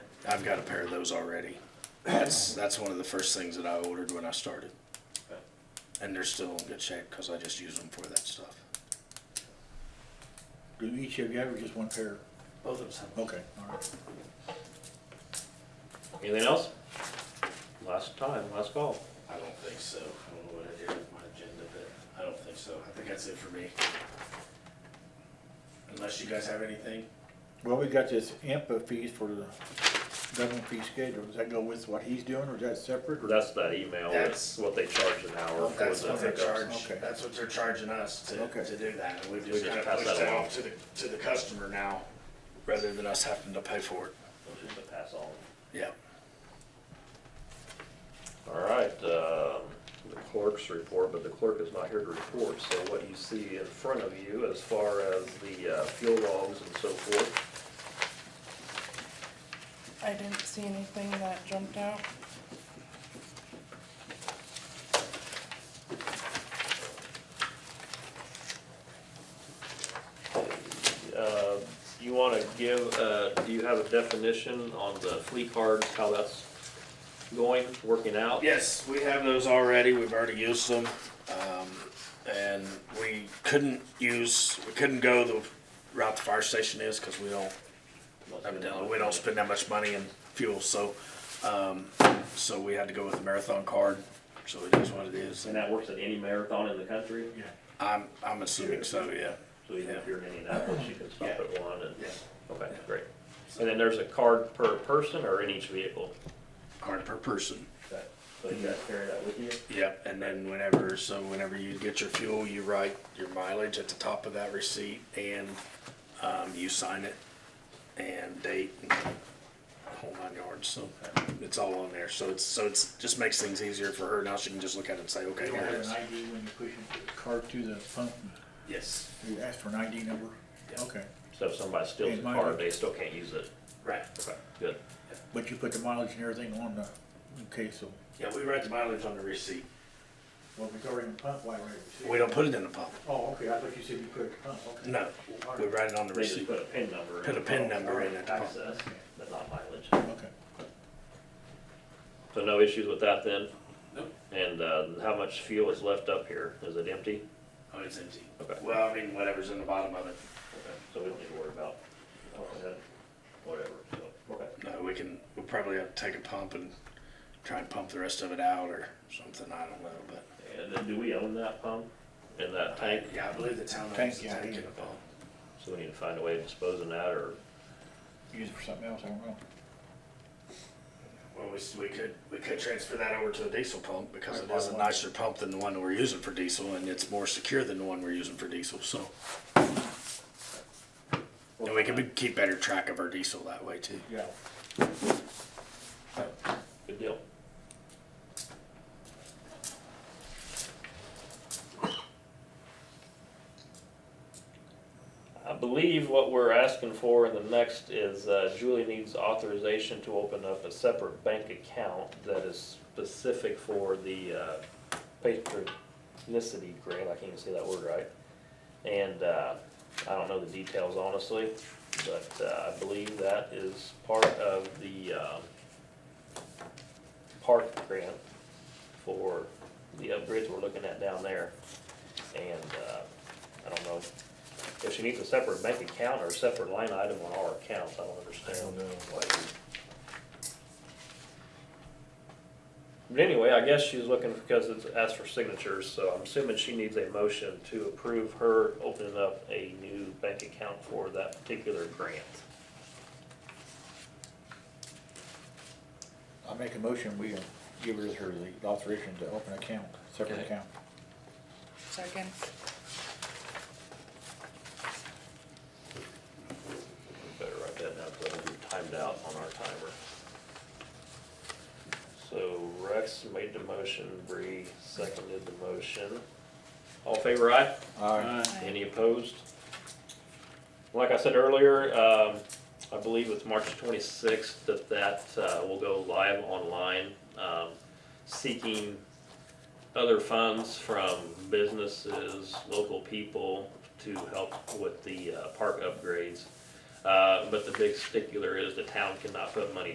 I've got a pair of those already. That's, that's one of the first things that I ordered when I started. And they're still in good shape, cause I just use them for that stuff. Do each of you have or just one pair? Both of us have Okay, all right. Anything else? Last time, last call. I don't think so. I don't know what I did with my agenda, but I don't think so. I think that's it for me. Unless you guys have anything? Well, we got this IMPA fees for the government fee schedule. Does that go with what he's doing or is that separate? or- That's that email, that's That's- what they charge an hour for That's the what they're pickups. charged, Okay. that's what they're charging us to, Okay. to do that. And we've We just just kind of pass that pushed that along. off to the, to the customer now, rather than us having to pay for it. Which is the pass on. Yeah. All right, um, the clerk's report, but the clerk is not here to report, so what you see in front of you as far as the uh, fuel logs and so forth, I didn't see anything that jumped out. uh, you want to give, uh, do you have a definition on the fleet cards, how that's going, working out? Yes, we have those already. We've already used them. Um, and we couldn't use, we couldn't go the route the fire station is because we don't, evidently, we don't spend that much money in fuel, so, um, so we had to go with the marathon card. So it is what it is. And that works at any marathon in the country? Yeah. I'm, I'm assuming so, yeah. So even if you're in Indianapolis, you can stop at one and, Yeah. okay, great. And then there's a card per person or in each vehicle? Card per person. So you guys carry that with you? Yep, and then whenever, so whenever you get your fuel, you write your mileage at the top of that receipt and, um, you sign it and date and whole nine yards, so it's all on there, so it's, so it's, just makes things easier for her, now she can just look at it and say, okay, Do you here have it an is. ID when you push your card through the pump? Yes, Do you ask for an ID number? Yeah. Okay, So if somebody steals a Yeah, mine- card, they still can't use it? right, Okay, good. but you put the mileage and everything on the, okay, so, yeah, we write the mileage on the receipt, well, if it's already in the pump, why write it? we don't put it in the pump, Oh, okay, I thought you said you put it in the pump, okay. no, we write it on the They just receipt, put a PIN number. Put a PIN number in it. Access, but not mileage. Okay. So no issues with that then? Nope. And, uh, how much fuel is left up here? Is it empty? oh, it's empty. Okay. Well, I mean, whatever's in the bottom of it, Okay, So we don't need to worry about, uh, whatever, so, okay. No, uh, we can, we'll probably have to take a pump and try and pump the rest of it out or something, I don't know, but. And then do we own that pump and that tank? Yeah, I believe the town Tank, owns the yeah, tank yeah. and the pump. So we need to find a way of disposing that or Use it for something else, I don't know. Well, we, s- we could, we could transfer that over to a diesel pump because it Right, is a why not? nicer pump than the one we're using for diesel and it's more secure than the one we're using for diesel, so. And we can be, keep better track of our diesel that way too. Yeah. Good deal. I believe what we're asking for in the next is uh, Julie needs authorization to open up a separate bank account that is specific for the uh, patronicity grant, I can't even say that word right. And uh, I don't know the details honestly, but uh, I believe that is part of the, um, park grant for the upgrades we're looking at down there. And, uh, I don't know if she needs a separate bank account or a separate line item on our accounts, I don't understand. why. But anyway, I guess she's looking because it's asked for signatures, so I'm assuming she needs a motion to approve her opening up a new bank account for that particular grant. I make a motion, we uh, give her her the authorization to open account, separate Okay. account. Second. Better write that down, because it'll be timed out on our timer. So Rex made the motion, Bree seconded the motion. All in favor aye? Aye. Any opposed? Like I said earlier, um, I believe it's March twenty-sixth that that, uh, will go live online, um, seeking other funds from businesses, local people to help with the, uh, park upgrades. Uh, but the big stickler is the town cannot put money